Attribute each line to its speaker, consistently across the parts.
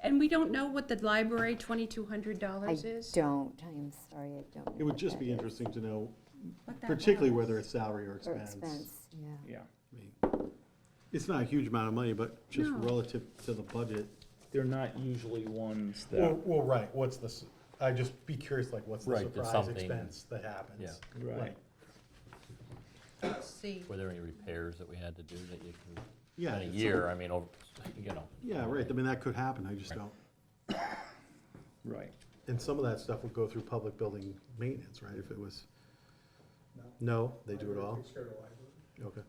Speaker 1: and we don't know what the library twenty-two hundred
Speaker 2: I
Speaker 1: dollars is?
Speaker 2: don't, I'm sorry, I don't. know
Speaker 3: It
Speaker 2: what
Speaker 3: would just
Speaker 2: that is.
Speaker 3: be interesting to know,
Speaker 1: What that
Speaker 3: particularly
Speaker 1: was.
Speaker 3: whether it's salary or
Speaker 2: Or
Speaker 3: expense.
Speaker 2: expense, yeah.
Speaker 4: Yeah,
Speaker 3: I mean, It's not a huge amount of money, but just
Speaker 1: No.
Speaker 3: relative to the budget.
Speaker 4: they're not usually ones that,
Speaker 3: Well, well, right, what's the, s- I just be curious, like, what's the
Speaker 5: Right, there's
Speaker 3: surprise
Speaker 5: something-
Speaker 3: expense that happens?
Speaker 5: yeah.
Speaker 4: right,
Speaker 1: See,
Speaker 5: Were there any repairs that we had to do that you can,
Speaker 3: Yeah.
Speaker 5: in a
Speaker 3: it's
Speaker 5: year,
Speaker 3: something-
Speaker 5: I mean, over, you know?
Speaker 3: Yeah, right, I mean, that could happen, I just don't,
Speaker 4: right.
Speaker 3: and some of that stuff would go through public building maintenance, right, if it was, no, they do it all? Okay,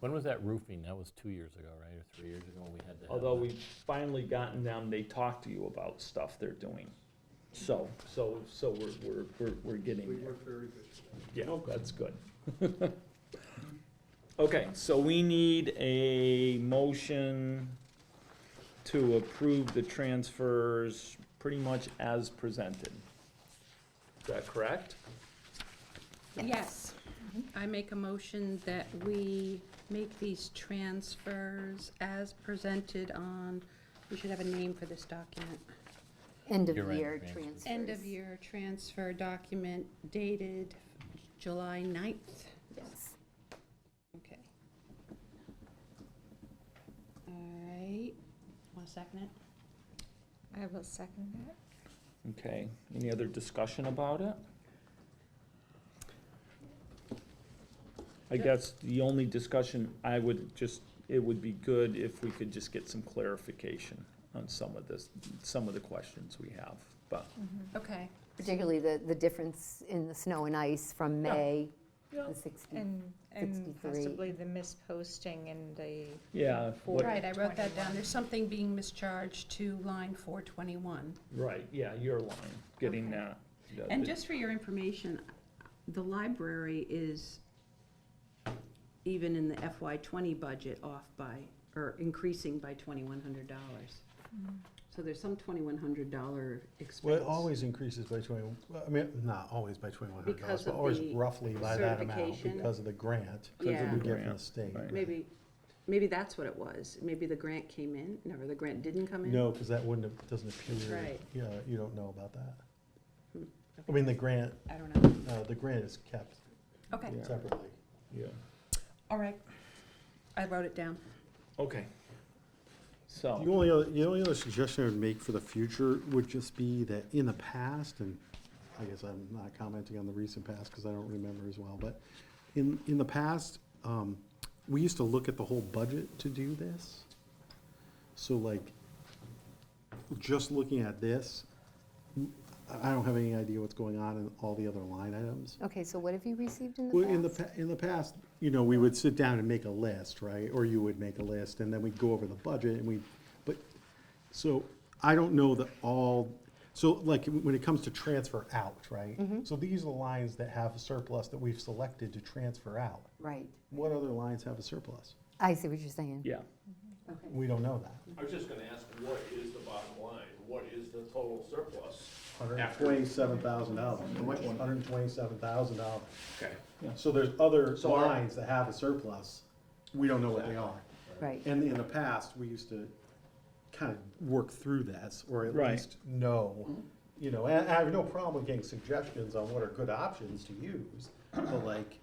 Speaker 5: When was that roofing? That was two years ago, right, or three years ago, when we had to have
Speaker 4: Although
Speaker 5: that?
Speaker 4: we've finally gotten them, they talk to you about stuff they're doing. So, so, so we're, we're, we're, we're getting there. Yeah, that's good. Okay, so we need a motion to approve the transfers pretty much as presented. Is that correct?
Speaker 1: yes, I make a motion that we make these transfers as presented on, we should have a name for this document.
Speaker 2: End of
Speaker 5: Year end
Speaker 2: year
Speaker 5: transfers.
Speaker 2: transfers.
Speaker 1: End of year transfer document dated July 9th.
Speaker 2: Yes.
Speaker 1: Okay. All right, want to second it?
Speaker 6: I will second that.
Speaker 4: Okay, any other discussion about it? I guess the only discussion I would just, it would be good if we could just get some clarification on some of this, some of the questions we have, but.
Speaker 1: Okay.
Speaker 2: Mm-hmm. Particularly the, the difference in the snow and ice from
Speaker 4: Yeah.
Speaker 2: May,
Speaker 4: Yeah.
Speaker 2: the 60.
Speaker 6: And, and
Speaker 2: 63.
Speaker 6: possibly the misposting and the,
Speaker 4: Yeah, what-
Speaker 1: Right, I wrote that down.
Speaker 6: 421.
Speaker 1: There's something being mischarged to line 421.
Speaker 4: right, yeah, your line, getting
Speaker 1: Okay.
Speaker 4: that. that-
Speaker 1: And just for your information, the library is, even in the FY twenty budget, off by, or increasing by twenty-one hundred dollars. So there's some twenty-one hundred dollar
Speaker 3: well,
Speaker 1: expense.
Speaker 3: it always increases by twenty, well, I mean, not always by twenty-one hundred dollars,
Speaker 1: Because
Speaker 3: but
Speaker 1: of
Speaker 3: always
Speaker 1: the
Speaker 3: roughly by that amount,
Speaker 1: certification.
Speaker 3: because of the grant
Speaker 4: because of
Speaker 1: Yeah.
Speaker 3: we
Speaker 4: the
Speaker 3: get from the
Speaker 4: grant,
Speaker 3: state.
Speaker 4: right.
Speaker 1: Maybe, maybe that's what it was. Maybe the grant came in, never, the grant didn't come in?
Speaker 3: No, because that wouldn't, have- doesn't appear,
Speaker 1: right.
Speaker 3: yeah, you don't know about that. I mean, the grant,
Speaker 1: I don't know.
Speaker 3: uh, the grant is kept
Speaker 1: Okay,
Speaker 4: Yeah.
Speaker 3: separately.
Speaker 4: Yeah,
Speaker 1: all right. I wrote it down.
Speaker 4: okay. So.
Speaker 3: The only other, the only other suggestion I would make for the future would just be that in the past, and I guess I'm not commenting on the recent past because I don't remember as well, but in, in the past, um, we used to look at the whole budget to do this. So like, just looking at this, I I don't have any idea what's going on in all the other line items.
Speaker 2: Okay, so what have you received in the past?
Speaker 3: Well, in the, pa- in the past, you know, we would sit down and make a list, right? Or you would make a list, and then we'd go over the budget, and we, but, so, I don't know that all, so like, when it comes to transfer out, right?
Speaker 2: Mm-hmm.
Speaker 3: So these are the lines that have a surplus that we've selected to transfer out.
Speaker 2: Right.
Speaker 3: What other lines have a surplus?
Speaker 2: I see what you're saying.
Speaker 4: Yeah,
Speaker 3: We don't know that.
Speaker 7: I was just gonna ask, what is the bottom line? What is the total surplus? After-
Speaker 3: twenty-seven thousand dollars. Hundred and twenty-seven thousand dollars.
Speaker 7: Okay.
Speaker 3: So there's other
Speaker 7: So our-
Speaker 3: lines that have a surplus, we don't know what they are.
Speaker 2: Right.
Speaker 3: And in the past, we used to kind of work through this, or at
Speaker 4: Right.
Speaker 3: least know, you know, and I have no problem with getting suggestions on what are good options to use, but like,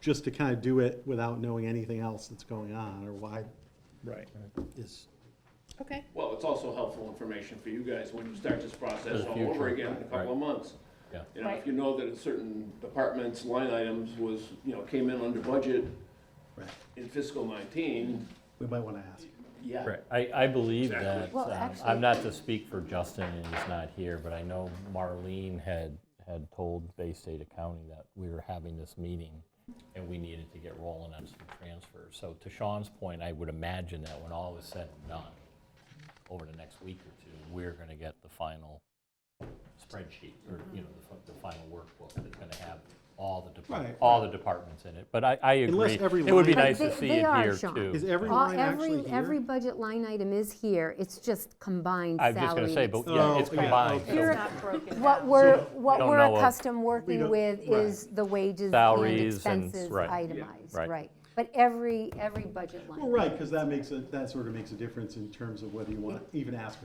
Speaker 3: just to kind of do it without knowing anything else that's going on, or why
Speaker 4: right.
Speaker 3: is,
Speaker 1: Okay.
Speaker 7: Well, it's also helpful information for you guys when you start this
Speaker 5: For
Speaker 7: process
Speaker 5: the
Speaker 7: all over
Speaker 5: future,
Speaker 7: again in a couple of months.
Speaker 5: Yeah.
Speaker 7: You know, if you know that a certain department's line items was, you know, came in under budget
Speaker 3: right,
Speaker 7: in fiscal nineteen,
Speaker 3: we might want to ask.
Speaker 7: yeah.
Speaker 5: Right, I, I believe that,
Speaker 7: Exactly.
Speaker 2: Well,
Speaker 5: um,
Speaker 2: actually-
Speaker 5: I'm not to speak for Justin, and he's not here, but I know Marlene had, had told Bay State Accounting that we were having this meeting, and we needed to get rolling on some transfers. So to Sean's point, I would imagine that when all is said and done, over the next week or two, we're gonna get the final spreadsheet, or, you know, the fi- the final workbook that's gonna have all the
Speaker 3: Right.
Speaker 5: departments, all the departments in it, but I, I agree.
Speaker 3: Unless every
Speaker 5: It would be
Speaker 3: line-
Speaker 5: nice to
Speaker 2: They-
Speaker 5: see
Speaker 2: they
Speaker 5: it
Speaker 2: are,
Speaker 5: here,
Speaker 2: Sean.
Speaker 5: too.
Speaker 3: Is every
Speaker 2: All-
Speaker 3: line
Speaker 2: every,
Speaker 3: actually
Speaker 2: every
Speaker 3: here?
Speaker 2: budget line item is here, it's just combined
Speaker 5: I
Speaker 2: salary.
Speaker 5: was just gonna say,
Speaker 2: and
Speaker 5: but
Speaker 2: expense.
Speaker 5: yeah,
Speaker 3: Oh,
Speaker 5: it's
Speaker 3: yeah,
Speaker 5: combined,
Speaker 3: okay.
Speaker 5: so
Speaker 2: You're-
Speaker 6: broken
Speaker 2: What we're, what
Speaker 5: don't
Speaker 2: we're
Speaker 5: know of-
Speaker 2: accustomed working
Speaker 3: don't-
Speaker 2: with is the wages and
Speaker 5: Salaries and-
Speaker 2: expenses
Speaker 5: right. Yeah,
Speaker 2: itemized,
Speaker 5: right.
Speaker 2: right? But every, every budget line.
Speaker 3: Well, right, because that makes a, that sort of makes a difference in terms of whether you want to even ask